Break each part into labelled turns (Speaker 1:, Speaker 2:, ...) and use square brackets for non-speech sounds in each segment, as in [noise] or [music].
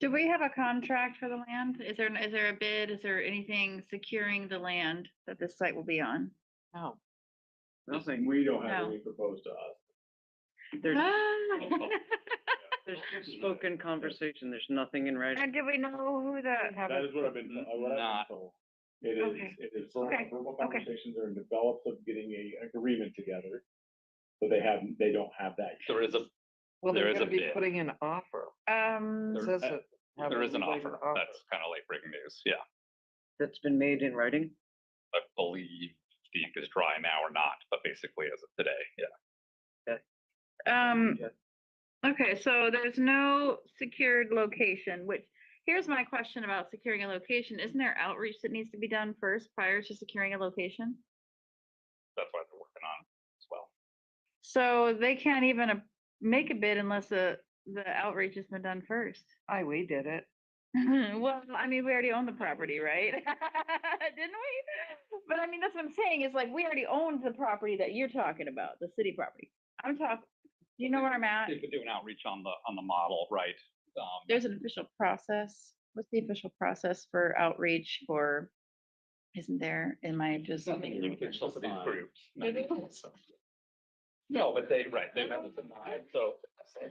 Speaker 1: Do we have a contract for the land? Is there, is there a bid? Is there anything securing the land that this site will be on?
Speaker 2: No.
Speaker 3: Nothing, we don't have
Speaker 1: No.
Speaker 3: any proposed to us.
Speaker 2: There's,
Speaker 1: Ah.
Speaker 2: there's just spoken conversation, there's nothing in writing.
Speaker 1: And do we know who the,
Speaker 3: That is what I've been, uh, what I've
Speaker 4: Mm-hmm. Not-
Speaker 3: been told. It
Speaker 1: Okay.
Speaker 3: is, it is verbal
Speaker 1: Okay,
Speaker 3: verbal
Speaker 1: okay.
Speaker 3: conversations are in developed of getting a agreement together. But they haven't, they don't have that. yet.
Speaker 4: There is a,
Speaker 2: Well,
Speaker 4: There
Speaker 2: they're
Speaker 4: is a
Speaker 2: gonna be
Speaker 4: bid.
Speaker 2: putting in an offer.
Speaker 1: um,
Speaker 2: It
Speaker 4: There-
Speaker 2: says
Speaker 3: uh,
Speaker 2: it- have
Speaker 4: there is an
Speaker 2: everybody an
Speaker 4: offer. That's kind of late breaking news. Yeah.
Speaker 2: That's been made in writing?
Speaker 4: I believe the ink is dry now or not, but basically as of today, yeah.
Speaker 1: um,
Speaker 2: Yeah.
Speaker 1: okay, so there's no secured location, which, here's my question about securing a location. Isn't there outreach that needs to be done first prior to securing a location?
Speaker 4: That's what they're working on as well.
Speaker 1: So they can't even a- make a bid unless the, the outreach has been done first.
Speaker 2: Aye, we did it.
Speaker 1: [laughs] Well, I mean, we already own the property, right? [laughs] Didn't we? But I mean, that's what I'm saying, is like, we already owned the property that you're talking about, the city property. I'm talking, you know where I'm at?
Speaker 4: They could do an outreach on the, on the model, right? Um,
Speaker 1: There's an official process. What's the official process for outreach for, isn't there, am I just?
Speaker 4: something you can sell to these
Speaker 3: Fine.
Speaker 4: groups.
Speaker 1: They
Speaker 4: maybe.
Speaker 1: do.
Speaker 4: No, but they, right, they've had it denied, so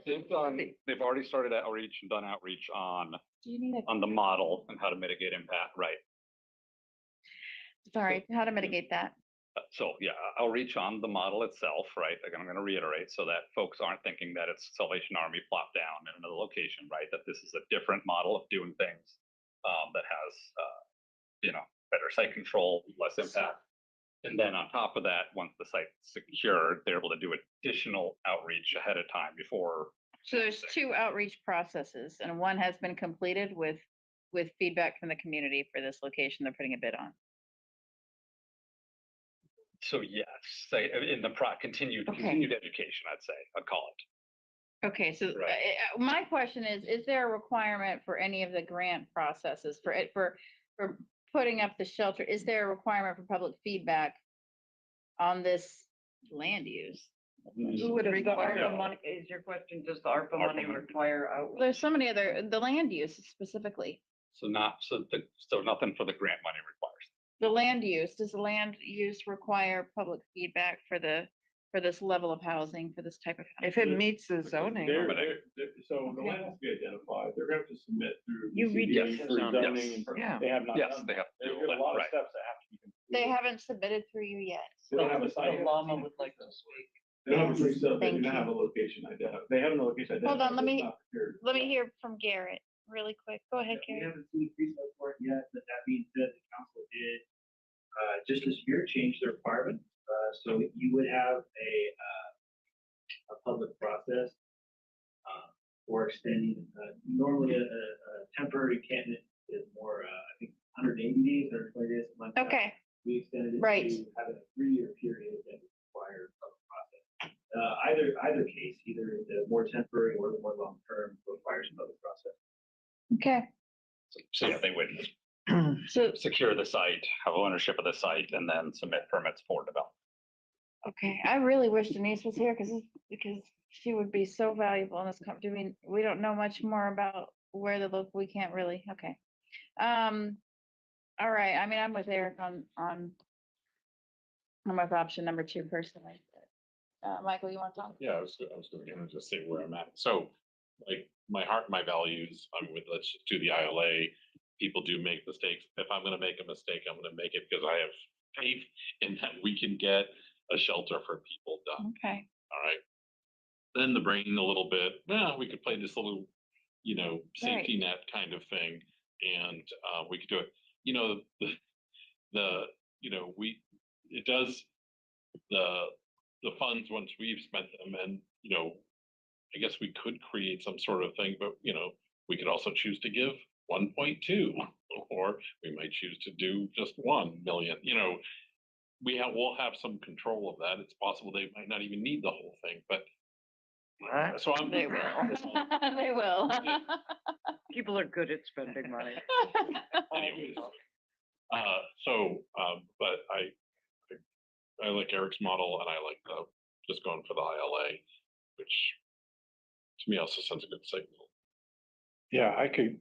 Speaker 4: they've done, they've already started outreach and done outreach on,
Speaker 1: Do you
Speaker 2: Um,
Speaker 1: need
Speaker 4: on the model and how to mitigate impact, right?
Speaker 1: a, sorry, how to mitigate that?
Speaker 4: Uh, So, yeah, I- I'll reach on the model itself, right? Again, I'm gonna reiterate so that folks aren't thinking that it's Salvation Army plop down in another location, right? That this is a different model of doing things, um, that has, uh, you know, better site control, less impact. And then on top of that, once the site's secured, they're able to do additional outreach ahead of time before.
Speaker 1: So there's two outreach processes and one has been completed with, with feedback from the community for this location they're putting a bid on.
Speaker 4: So yes, say, uh, in the pro, continued,
Speaker 1: Okay.
Speaker 4: continued education, I'd say, I'd call it.
Speaker 1: Okay, so
Speaker 4: Right.
Speaker 1: uh, uh, my question is, is there a requirement for any of the grant processes for it, for, for putting up the shelter? Is there a requirement for public feedback on this land use?
Speaker 2: Who would have thought
Speaker 1: Require-
Speaker 2: ARPA money, is your question, does the ARPA
Speaker 4: ARPA
Speaker 2: money
Speaker 4: money.
Speaker 2: require outreach?
Speaker 1: There's so many other, the land use specifically,
Speaker 4: So not, so the, so nothing for the grant money requires.
Speaker 1: the land use, does the land use require public feedback for the, for this level of housing, for this type of? housing?
Speaker 2: If it
Speaker 3: Because
Speaker 2: meets the
Speaker 3: Because
Speaker 2: zoning,
Speaker 3: they're-
Speaker 2: or-
Speaker 3: they're- they're- So the
Speaker 1: Okay.
Speaker 3: land has to be identified, they're gonna have to submit through.
Speaker 2: You read
Speaker 3: CDA
Speaker 4: Yes.
Speaker 3: for
Speaker 2: Yes.
Speaker 3: zoning and-
Speaker 2: yeah,
Speaker 3: They have not
Speaker 4: Yes,
Speaker 3: done
Speaker 4: they
Speaker 3: that.
Speaker 4: have to
Speaker 3: There's
Speaker 4: do
Speaker 3: a
Speaker 4: it,
Speaker 3: lot of
Speaker 4: right.
Speaker 3: steps that have to be completed.
Speaker 5: Mm-hmm.
Speaker 1: They haven't submitted through you yet.
Speaker 3: They don't have a
Speaker 2: the
Speaker 3: site.
Speaker 2: llama would like this week.
Speaker 3: They don't have a
Speaker 1: Yes,
Speaker 3: pre-sub, they do
Speaker 1: thank
Speaker 3: not have a
Speaker 1: you.
Speaker 3: location identified, they have a location identified.
Speaker 1: on, let
Speaker 3: but it's
Speaker 1: me-
Speaker 3: not secured.
Speaker 1: Let me hear from Garrett really quick. Go ahead,
Speaker 5: We
Speaker 1: Garrett.
Speaker 5: haven't seen a pre-sub report yet, but that being said, the council did, uh, just this year, change the requirement. Uh, so you would have a, uh, a public process, uh, for extending, uh, normally a, a, a temporary candidate is more, uh, I think, hundred eighty days or twenty days, something like that.
Speaker 1: Okay,
Speaker 5: We extended it
Speaker 1: Right.
Speaker 5: to having a three-year period that requires a process. Uh, either, either case, either the more temporary or the more long-term requires another process.
Speaker 1: okay.
Speaker 4: So- So yeah, they would
Speaker 5: Mm-hmm.
Speaker 1: So,
Speaker 4: secure the site, have ownership of the site, and then submit permits for development.
Speaker 1: okay, I really wish Denise was here because, because she would be so valuable in this com, I mean, we don't know much more about where the look, we can't really, okay. Um, all right, I mean, I'm with Eric on, on, I'm with option number two personally. Uh, Michael, you want to talk?
Speaker 6: Yeah, I was, I was gonna just say where I'm at. So like my heart, my values, I'm with, let's just do the ILA. People do make mistakes. If I'm gonna make a mistake, I'm gonna make it because I have faith in that we can get a shelter for people done.
Speaker 1: Okay,
Speaker 6: All right. Then the brain a little bit, yeah, we could play this little, you know, safety net kind of thing. And uh, we could do it, you know, the, the, you know, we, it does, the, the funds, once we've spent them and, you know, I guess we could create some sort of thing, but you know, we could also choose to give one point two. Or we might choose to do just one million, you know, we have, we'll have some control of that. It's possible they might not even need the whole thing, but.
Speaker 2: Right.
Speaker 6: So I'm.
Speaker 1: they will, [laughs] they will.
Speaker 2: People are good at spending money.
Speaker 1: [laughs]
Speaker 6: Anyways, uh, so, um, but I, I- I like Eric's model and I like the, just going for the ILA, which to me also sends a good signal.
Speaker 3: Yeah, I could,